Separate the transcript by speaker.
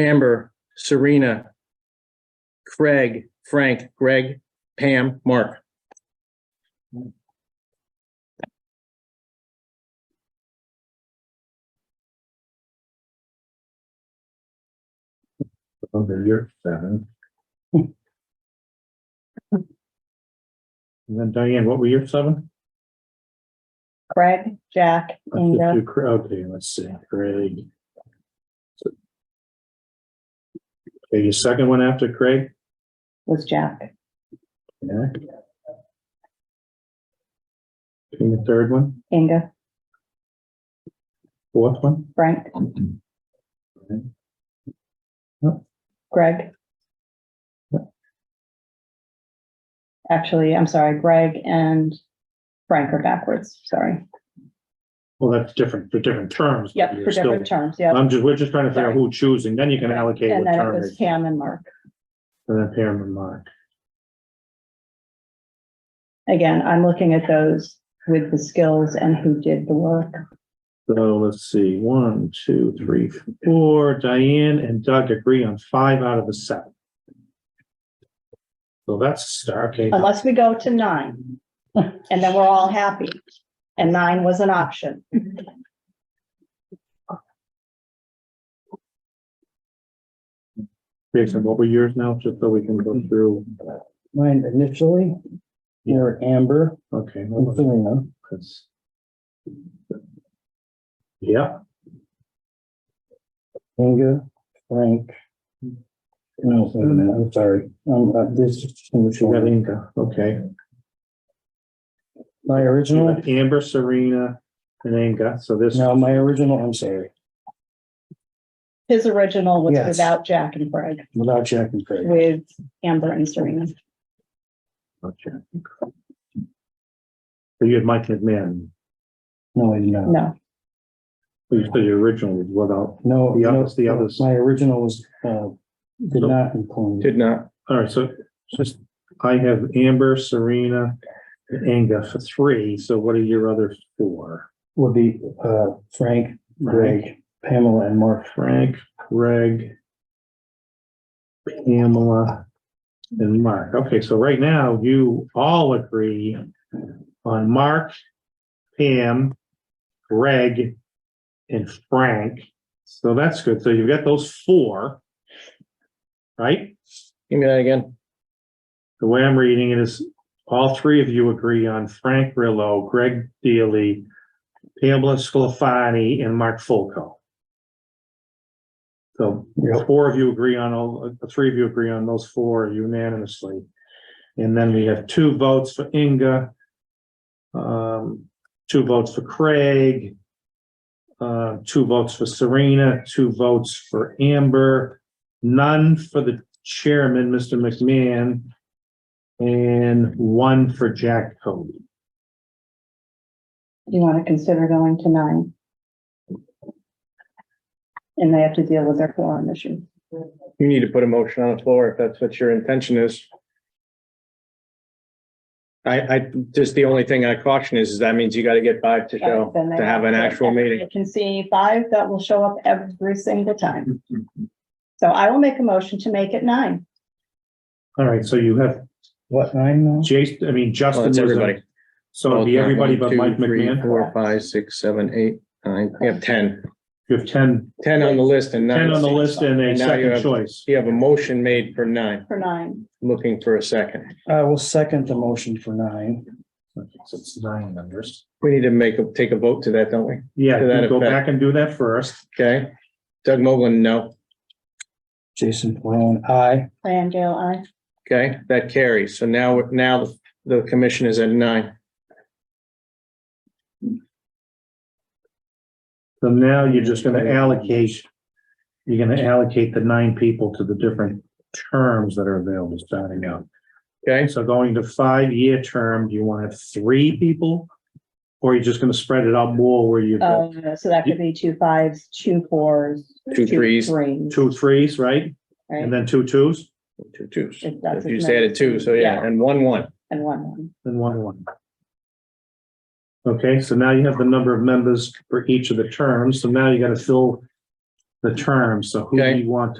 Speaker 1: Amber, Serena, Craig, Frank, Greg, Pam, Mark.
Speaker 2: Under your seven. And then Diane, what were your seven?
Speaker 3: Craig, Jack,
Speaker 2: Let's just
Speaker 3: Inga,
Speaker 2: do Cra- Okay, let's see, Craig. Okay, your second one after Craig?
Speaker 3: was Jack.
Speaker 2: Yeah. And the third one,
Speaker 3: Inga,
Speaker 2: fourth one?
Speaker 3: Frank, Greg. Actually, I'm sorry, Greg and Frank are backwards, sorry.
Speaker 2: Well, that's different, for different terms. but
Speaker 3: Yep,
Speaker 2: you're
Speaker 3: for
Speaker 2: still-
Speaker 3: different terms, yep.
Speaker 2: I'm just, we're just trying to figure out who choosing, then you can allocate
Speaker 3: And
Speaker 2: what
Speaker 3: then it
Speaker 2: term it
Speaker 3: was
Speaker 2: is,
Speaker 3: Pam and Mark.
Speaker 2: and then pair and mark.
Speaker 3: Again, I'm looking at those with the skills and who did the work.
Speaker 2: So let's see, one, two, three, four, Diane and Doug agree on five out of the seven. So that's a start, okay,
Speaker 4: Uh,
Speaker 3: Unless we go to nine, and then we're all happy. And nine was an option.
Speaker 2: Jason, what were yours now, just so we can go through,
Speaker 4: Mine initially were Amber
Speaker 2: okay.
Speaker 4: and
Speaker 2: hold on,
Speaker 4: Selena.
Speaker 2: 'cause- Yeah,
Speaker 4: Inga, Frank. No, wait a minute, I'm sorry. Um, uh, this is just in the
Speaker 2: you got
Speaker 4: short.
Speaker 2: Inga, okay.
Speaker 4: My
Speaker 2: You
Speaker 4: original,
Speaker 2: got Amber, Serena, and Inga, so this,
Speaker 4: no, my original, I'm sorry,
Speaker 3: His original was
Speaker 4: Yes.
Speaker 3: without Jack and Greg,
Speaker 4: without Jack and Craig.
Speaker 3: with Amber and Serena.
Speaker 2: okay. So you had Mike McMahon,
Speaker 4: No, I did not.
Speaker 3: No,
Speaker 2: who you said your original was without,
Speaker 4: No.
Speaker 2: The
Speaker 4: no,
Speaker 2: others- the others.
Speaker 4: My original was, uh, did
Speaker 2: No.
Speaker 4: not include.
Speaker 1: Did not.
Speaker 2: all right, so just, I have Amber, Serena, and Inga for three, so what are your other four?
Speaker 4: Would be, uh, Frank, Greg, Pamela and Mark.
Speaker 2: Frank, Greg, Pamela, and Mark. Okay, so right now you all agree on Mark, Pam, Greg, and Frank. So that's good. So you've got those four, right?
Speaker 1: Give me that again.
Speaker 2: The way I'm reading it is all three of you agree on Frank Rillo, Greg Dealey, Pamela Sclafani, and Mark Fulco. So the four of you agree on all, the three of you agree on those four unanimously. And then we have two votes for Inga. Um, two votes for Craig. Uh, two votes for Serena, two votes for Amber, none for the chairman, Mr. McMahon. And one for Jack Cody.
Speaker 3: you want to consider going to nine. And they have to deal with their forum issue.
Speaker 1: You need to put a motion on the floor if that's what your intention is. I, I, just the only thing I caution is, is that means you got to get five to show,
Speaker 3: Then they
Speaker 1: to have an actual
Speaker 3: I
Speaker 1: meeting.
Speaker 3: can see five that will show up every single time. So I will make a motion to make it nine.
Speaker 2: All right, so you have
Speaker 4: What, nine now?
Speaker 2: Jason, I mean, Justin.
Speaker 1: Well, it's
Speaker 2: was a-
Speaker 1: everybody.
Speaker 2: So it'd be everybody but
Speaker 1: One, two,
Speaker 2: Mike
Speaker 1: three,
Speaker 2: McMahon.
Speaker 1: Four, five, six, seven, eight, nine, you have ten.
Speaker 2: You have ten,
Speaker 1: Ten on the list and nine.
Speaker 2: ten on the list and a
Speaker 1: And now you
Speaker 2: second
Speaker 1: have-
Speaker 2: choice.
Speaker 1: You have a motion made for nine,
Speaker 3: For nine,
Speaker 1: looking for a second.
Speaker 4: I will second the motion for nine.
Speaker 2: So It's nine numbers.
Speaker 1: We need to make, a take a vote to that, don't we?
Speaker 2: Yeah,
Speaker 1: To that
Speaker 2: you go
Speaker 1: effect.
Speaker 2: back and do that first.
Speaker 1: Okay? Doug Moglen, no.
Speaker 4: Jason Peron, aye.
Speaker 3: Diane Gale, I.
Speaker 1: Okay, that carries. So now, now the- the commission is at nine.
Speaker 2: So now you're just gonna allocate, you're gonna allocate the nine people to the different terms that are available starting out.
Speaker 1: Okay,
Speaker 2: So going to five-year term, do you want to have three people? Or you're just gonna spread it out more where you've got
Speaker 3: Uh, so that could be two fives, two fours.
Speaker 1: Two threes.
Speaker 3: Threes,
Speaker 2: two threes, right?
Speaker 3: right?
Speaker 2: And then two twos
Speaker 1: two twos.
Speaker 3: If that's
Speaker 1: If You
Speaker 3: as
Speaker 1: just
Speaker 3: many.
Speaker 1: added two, so yeah, and one, one.
Speaker 3: And one, one.
Speaker 2: and one one. Okay, so now you have the number of members for each of the terms. So now you gotta fill the terms. So who do
Speaker 1: Okay.
Speaker 2: you want